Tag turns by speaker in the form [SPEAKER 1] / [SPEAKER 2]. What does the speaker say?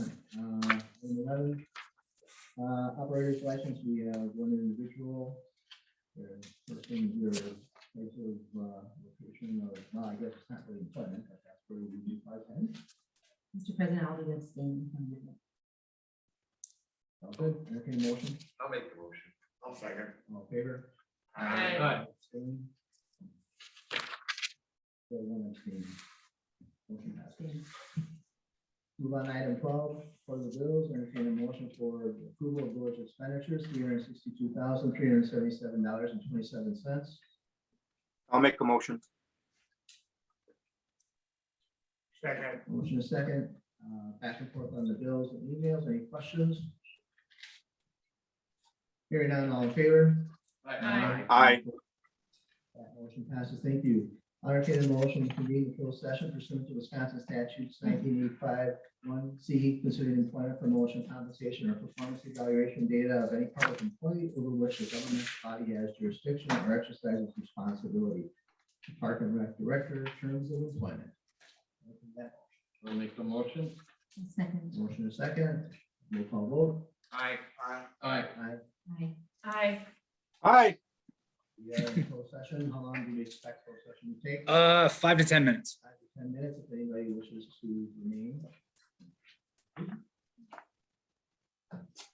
[SPEAKER 1] Road. Uh, operator's license, we have one individual. Their person, your place of, uh, location, or, well, I guess it's not really employment, but that's where we do five ten.
[SPEAKER 2] Mr. President, I'll be abstaining from the vote.
[SPEAKER 1] All good, entertain a motion,
[SPEAKER 3] I'll make the motion. I'll second.
[SPEAKER 1] all in favor?
[SPEAKER 3] Aye.
[SPEAKER 4] Aye.
[SPEAKER 1] Abstain. So one abstain. Motion passes.
[SPEAKER 2] Abstain.
[SPEAKER 1] Move on to item twelve, for the bills, entertain a motion for the approval of village expenditures, three hundred sixty-two thousand, three hundred seventy-seven dollars and twenty-seven cents.
[SPEAKER 5] I'll make a motion.
[SPEAKER 3] Second.
[SPEAKER 1] Motion is second, uh, back and forth on the bills and emails, any questions? Hearing none, all in favor?
[SPEAKER 4] Aye.
[SPEAKER 5] Aye.
[SPEAKER 1] That motion passes, thank you. I'll entertain a motion to convene a closed session pursuant to Wisconsin statutes nineteen eighty-five, one C, considering employment promotion, compensation, or performance evaluation data of any public employee over which the government body has jurisdiction or exercises responsibility. Park and Rec Director, terms of employment.
[SPEAKER 4] I'll make the motion.
[SPEAKER 2] I'll Second.
[SPEAKER 1] Motion is second, roll call vote.
[SPEAKER 3] Aye. Aye.
[SPEAKER 4] Aye.
[SPEAKER 1] Aye.
[SPEAKER 2] Aye.
[SPEAKER 6] Aye.
[SPEAKER 5] Aye.
[SPEAKER 1] We are in closed session. How long do we expect closed session to take?
[SPEAKER 7] Uh, five to 10 minutes.
[SPEAKER 1] Five to Ten minutes if anybody wishes to remain.